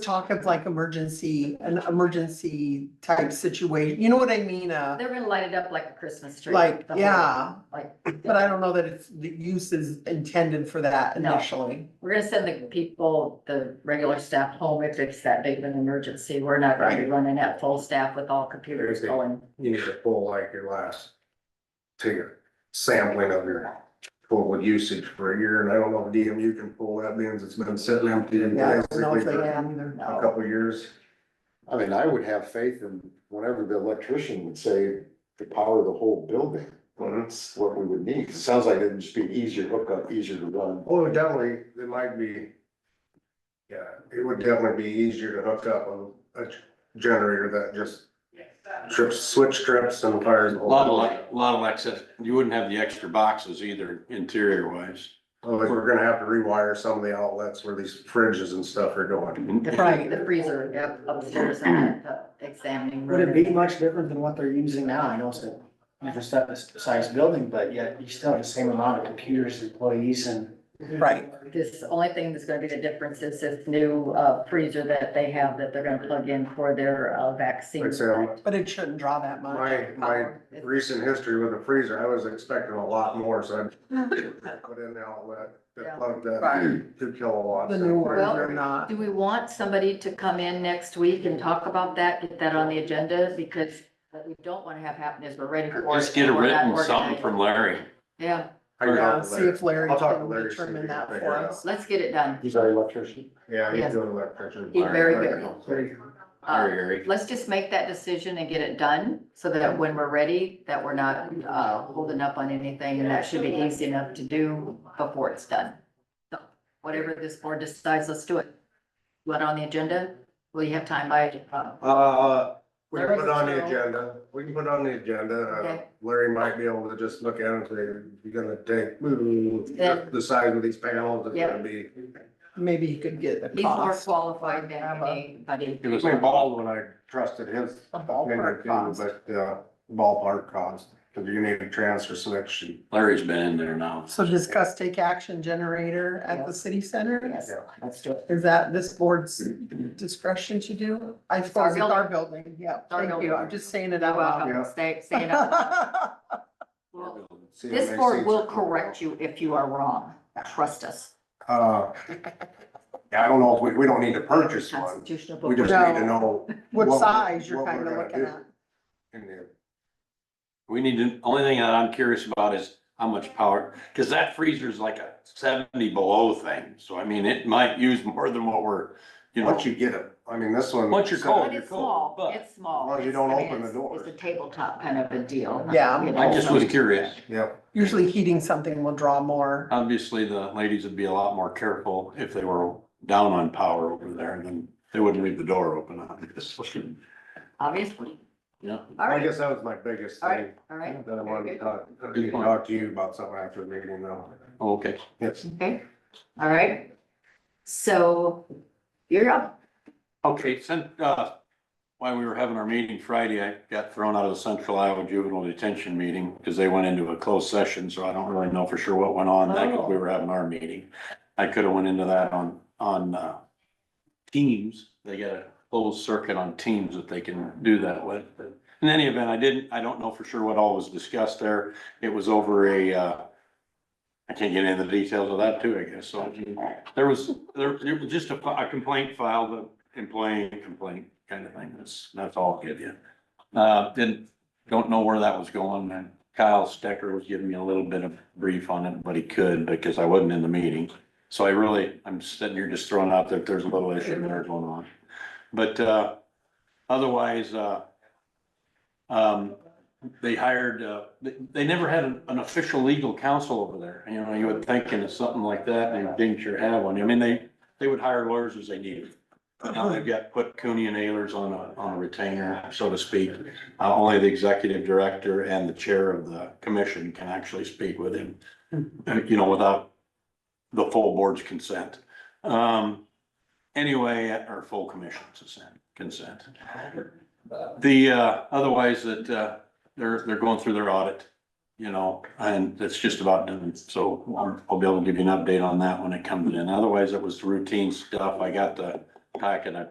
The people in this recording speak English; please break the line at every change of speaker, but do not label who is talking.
talk of like emergency, an emergency type situation, you know what I mean, uh,
They're gonna light it up like a Christmas tree.
like,
the whole-
yeah.
Like,
But I don't know that it's, the use is intended for that
No.
initially.
we're gonna send the people, the regular staff home if it's that big of an emergency. We're not gonna be running at full staff with all computers going.
you need to pull like your last. To your sampling of your total usage for a year, and I don't know if DMU can pull that, means it's been sitting empty.
Yeah, I don't know
basically
if they
for A
can either.
No.
couple of years,
I mean, I would have faith in whatever the electrician would say to power the whole building.
Mhm.
That's what we would need. It sounds like it'd just be easier hookup, easier to run.
oh, definitely, it might be. Yeah, it would definitely be easier to hook up on a g- generator that just trips, switch trips and fires.
A lot of like, a lot of access, you wouldn't have the extra boxes either interior wise.
Like, we're gonna have to rewire some of the outlets where these fridges and stuff are going.
The-
Right.
The freezer yep, upstairs and the examining.
Would it
room.
be much different than what they're using now? I know it's a different size building, but yet you still have the same amount of computers, employees and.
Right.
This only thing that's gonna be the difference is this new uh, freezer that they have that they're gonna plug in for their uh, vaccine.
Like I said, I'm-
But it shouldn't draw that much.
my, my recent history with the freezer, I was expecting a lot more, so I put in the outlet
Yeah.
that plugged that
Right.
two kilowatts.
The new ones
Well-
are not,
Do we want somebody to come in next week and talk about that, get that on the agenda? Because what we don't want to have happen is we're ready for.
Just get a written something from Larry.
Yeah,
I can
yeah,
talk to
see
Larry.
if Larry
I'll talk to
can
Larry, see if he
determine
can
that
figure
for
it out.
us.
let's get it done.
He's our electrician.
Yeah,
Yes.
he's doing electrician.
He's very good.
Very,
Uh,
very.
Let's just make that decision and get it done so that when we're ready, that we're not uh, holding up on anything. And that should be easy enough to do before it's done. So Whatever this board decides, let's do it. What on the agenda? Will you have time by, uh,
Uh, we can
Larry's
put it on the
around.
agenda, we can put it on the agenda, uh,
Okay.
Larry might be able to just look at it and say, you're gonna take, mm, the size of these panels, it's
Yeah.
gonna be.
Maybe he could get the
he's more
cost.
qualified than
Have a-
anybody.
It was
I mean, Baldwin, I trusted his
A
opinion
ballpark
too,
cost.
but, uh, ballpark cost, cause you need a transfer selection.
Larry's been in there now.
So discuss take action generator at the city center?
Yes, let's do it.
Is that this board's discretion to do? I suppose it's our building, yeah,
our
thank you,
building.
I'm just saying it
You're
out loud.
welcome. Stay, stay it up. Well, This board will correct you if you are wrong. Trust us.
Uh, I don't know, if we, we don't need to purchase one,
Constitutional
we
book.
just
No.
need to know
What
What-
size you're
what we're
kind of
gonna
looking
do.
at.
in the
We need to, only thing that I'm curious about is how much power, because that freezer's like a seventy below thing. So I mean, it might use more than what we're, you know,
Once you get it, I mean, this one.
Once you're cold.
But it's small,
But-
it's small.
As long as you
It's- I
don't
mean,
open the
it's-
door.
It's a tabletop kind of a deal.
Yeah.
you know.
I just was curious.
Yep,
Usually heating something will draw more.
Obviously, the ladies would be a lot more careful if they were down on power over there, then they wouldn't leave the door open, obviously.
Obviously.
Yeah.
All
I
right,
guess that was my biggest
All right.
thing,
all right.
that I wanted to
Very good.
talk, to talk to you about something after the meeting though.
Okay.
Yes.
Okay, all right. So you're up.
Okay, since, uh, while we were having our meeting Friday, I got thrown out of the Central Iowa Juvenile Detention meeting because they went into a closed session, so I don't really know for sure what went on. That, 'cause we were having our meeting. I could have went into that on, on, uh, Teams. They got a closed circuit on Teams that they can do that with. But In any event, I didn't, I don't know for sure what all was discussed there. It was over a, uh, I can't get into the details of that too, I guess. So there was, there, it was just a fi- a complaint filed, a employee complaint kind of thing. That's, that's all I'll give you. Uh, didn't, don't know where that was going. And Kyle Stecker was giving me a little bit of brief on it, but he could because I wasn't in the meeting. So I really, I'm sitting here just throwing out that there's a little issue there going on. But, uh, otherwise, uh, um, they hired, uh, they, they never had an an official legal counsel over there. You know, you would think in something like that, they didn't sure have one. I mean, they, they would hire lawyers as they needed. But now Uh, they've got put Cooney and Ayers on a, on a retainer, so to speak. Uh, only the executive director and the chair of the commission can actually speak with him, uh, you know, without the full board's consent. Um, anyway, or full commission's consent, consent. The, uh, otherwise that, uh, they're, they're going through their audit, you know, and that's just about done. So I'll- I'll be able to give you an update on that when it comes in. Otherwise, it was routine stuff. I got the packet, I